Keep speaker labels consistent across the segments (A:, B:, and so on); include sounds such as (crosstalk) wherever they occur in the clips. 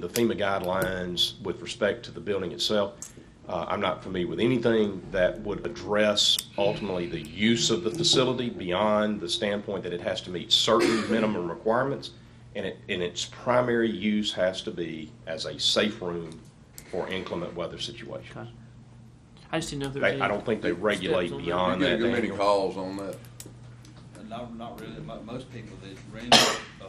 A: The FEMA guidelines with respect to the building itself, uh, I'm not familiar with anything that would address ultimately the use of the facility beyond the standpoint that it has to meet certain minimum requirements, and it, and its primary use has to be as a safe room for inclement weather situations.
B: Okay. I just didn't know if there was
A: They,
B: any.
A: I don't think they regulate
B: steps on that.
A: beyond
C: You
A: that,
C: get many
A: Daniel.
C: calls on that.
D: Not, not really, Mo- most people that rent, uh,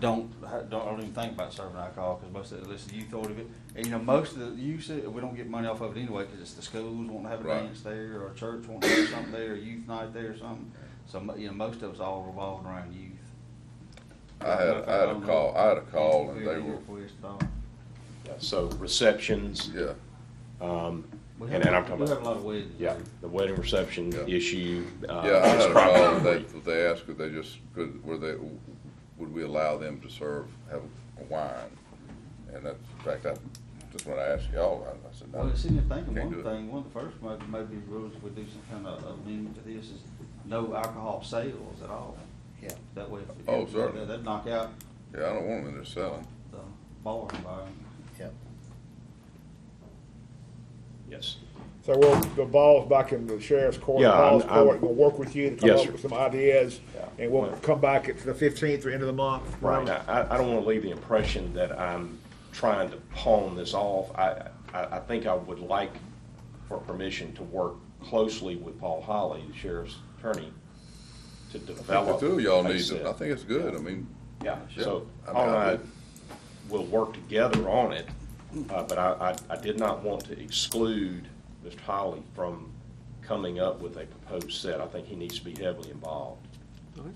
D: don't, ha- don't, don't even think about serving alcohol, because most of, at least the youth order of it, and you know, most of the youth, say, we don't get money off of it anyway, because it's the schools wanting to have a
C: Right.
D: dance there, or church wanting to have something there, or youth night there, or something, so, mo- you know, most of it's all revolving around youth.
C: I had, I had a call, I had a call and they were,
D: uh,
A: So receptions,
C: yeah,
A: And- and I'm talking
D: We
A: about-
D: have a lot of weddings.
A: yeah, the wedding reception
C: Yeah.
A: issue. uh,
C: yeah, I
A: is
C: had a call, and
A: primarily-
C: they, they asked if they just, could, were they, would we allow them to serve, have a wine? And that's, in fact, I, just when I asked y'all, I I said,
D: Well,
C: no.
D: it's in there thinking,
C: Can't
D: one
C: do it.
D: thing, one of the first, maybe, maybe rules, we do some kind of amendment to this is no alcohol sales at all.
E: Yeah.
D: That way. if-
C: Oh, certainly.
D: That'd knock out
C: Yeah, I don't want them in there selling.
D: the bar environment.
E: Yep.
A: Yes.
F: So we'll, the ball's back in the sheriff's court,
A: Yeah, I'm-
F: Paul's court,
A: I'm-
F: we'll work with you to come
A: Yes,
F: up
A: sir.
F: with some ideas,
A: Yeah.
F: and we'll
A: Well-
F: come back at the fifteenth or end of the month.
A: Right. I, I- I don't want to leave the impression that I'm trying to pawn this off. I, I, I think I would like for permission to work closely with Paul Holly, the sheriff's attorney, to
C: I
A: develop.
C: think The two of y'all
A: a
C: need
A: set.
C: it. I think it's good. I mean,
A: Yeah,
C: Yeah,
A: so
C: I mean,
A: Paul and
C: I
A: I
C: do.
A: will work together on it, uh, but I, I, I did not want to exclude Mr. Holly from coming up with a proposed set. I think he needs to be heavily involved.
B: Okay.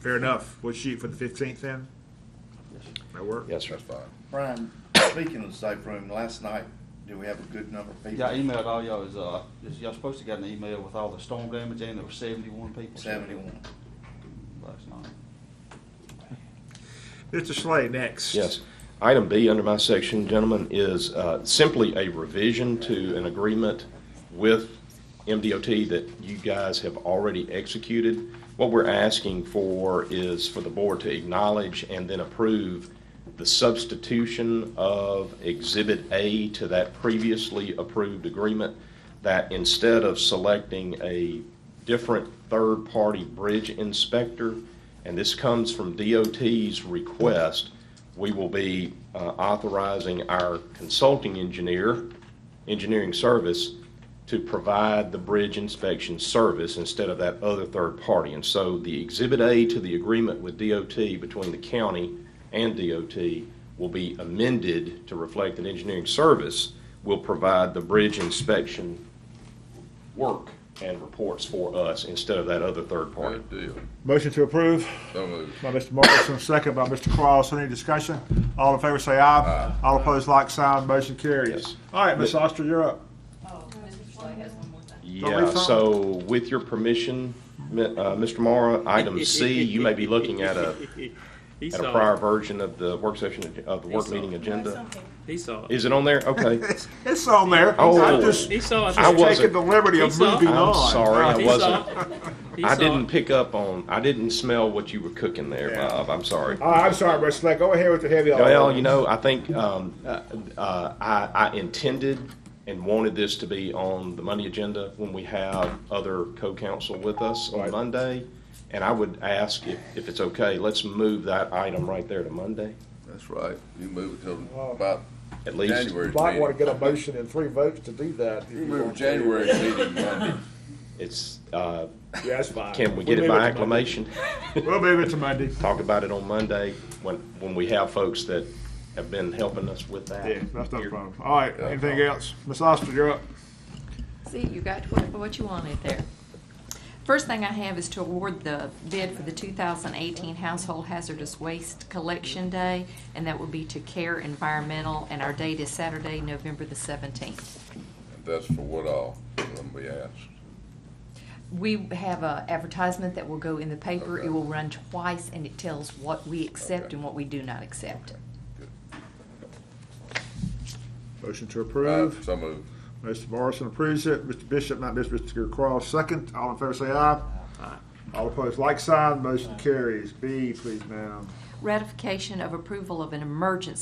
F: Fair enough, we'll shoot for the fifteenth then? That work?
A: Yes,
C: that's fine.
E: Brian, speaking of the safe room, last night, did we have a good number of people?
D: Yeah, I emailed all y'all, is, uh, is y'all supposed to get an email with all the storm damage, and there were seventy-one people.
E: Seventy-one.
D: Last night.
F: Mr. Slay next.
A: Yes. Item B under my section, gentlemen, is uh, simply a revision to an agreement with MDOT that you guys have already executed. What we're asking for is for the board to acknowledge and then approve the substitution of Exhibit A to that previously approved agreement that instead of selecting a different third-party bridge inspector, and this comes from DOT's request, we will be uh, authorizing our consulting engineer, engineering service, to provide the bridge inspection service instead of that other third party. And so the Exhibit A to the agreement with DOT between the county and DOT will be amended to reflect that engineering service will provide the bridge inspection work and reports for us instead of that other third party.
C: Good deal.
F: Motion to approve
C: So moved.
F: by Mr. Morrison, second by Mr. Cross, any discussion? All in favor say aye, all opposed like sign, motion
A: Yes.
F: carries. All right, Ms. Oster, you're up.
G: Oh, Mr. Slay has one more thing.
A: Yeah,
F: Don't we, Tom?
A: so with your permission, mi- uh, Mr. Mara, item C, you may be looking at a,
B: (laughs) He
A: at a
B: saw
A: prior
B: it.
A: version of the work session, of the work
B: Esau.
A: meeting agenda.
G: Something.
B: He saw it.
A: Is it on there? Okay.
F: (laughs) It's, it's on there,
A: Oh.
F: I'm just
B: He saw it.
A: I
F: just taking
A: wasn't-
F: the liberty of
B: He's on.
F: moving
A: I'm
F: on.
A: sorry, I
B: He
A: wasn't-
B: saw it. He
A: I
B: saw
A: didn't
B: it.
A: pick up on, I didn't smell what you were cooking there,
F: Yeah.
A: Bob. I'm sorry.
F: All right, I'm sorry, Mr. Slay, go ahead with the heavy.
A: Well, you know, I think um, uh, uh, I, I intended and wanted this to be on the Monday agenda when we have other co-counsel with us on
F: Right.
A: Monday. And I would ask if, if it's okay, let's move that item right there to Monday,
C: That's right. You move it till about
A: at least.
C: January's
F: Might want to
C: meeting.
F: get a motion and three votes to do that. if
C: You
F: you
C: move
F: want.
C: January's meeting Monday.
A: It's, uh,
F: Yeah, that's fine.
A: can we get
F: We'll
A: it
F: move
A: by
F: to Monday.
A: acclamation?
F: We'll move it to Monday.
A: Talk about it on Monday when, when we have folks that have been helping us with that.
F: Yeah, that's not a problem. All right, anything else? Ms. Oster, you're up.
H: See, you got what, what you wanted there. First thing I have is to award the bid for the 2018 Household Hazardous Waste Collection Day, and that will be to Care Environmental, and our date is Saturday, November the 17th.
C: And That's for what all, let me ask.
H: We have a advertisement that will go in the paper.
C: Okay.
H: It will run twice, and it tells what we accept
C: Okay.
H: and what we do not accept.
F: Motion to
C: Uh,
F: approve.
C: So moved.
F: Mr. Morrison approves it. Mr. Bishop, not Mr. Mr. Cross, second. All in favor, say aye.
B: Aye.
F: All opposed, like sign. Motion carries. B, please, ma'am.
H: ratification of approval of an emergency